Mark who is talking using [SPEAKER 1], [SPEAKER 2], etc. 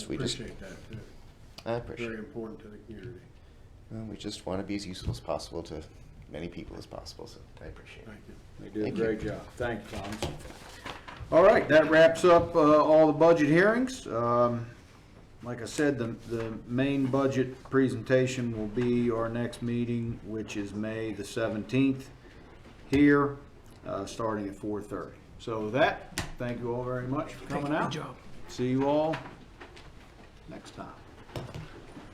[SPEAKER 1] We just,
[SPEAKER 2] Appreciate that, too.
[SPEAKER 1] I appreciate
[SPEAKER 2] Very
[SPEAKER 1] it.
[SPEAKER 2] important to the community.
[SPEAKER 1] Well, We just want to be as useful as possible to many people as possible, so I appreciate it.
[SPEAKER 2] Thank you.
[SPEAKER 3] They did a
[SPEAKER 1] Thank you.
[SPEAKER 3] great job. Thank you, Thomas. All right, that wraps up uh, all the budget hearings. Um, Like I said, the, the main budget presentation will be our next meeting, which is May the 17th, here, uh, starting at 4:30. So with that, thank you all very much for coming out.
[SPEAKER 4] job.
[SPEAKER 3] See you all next time.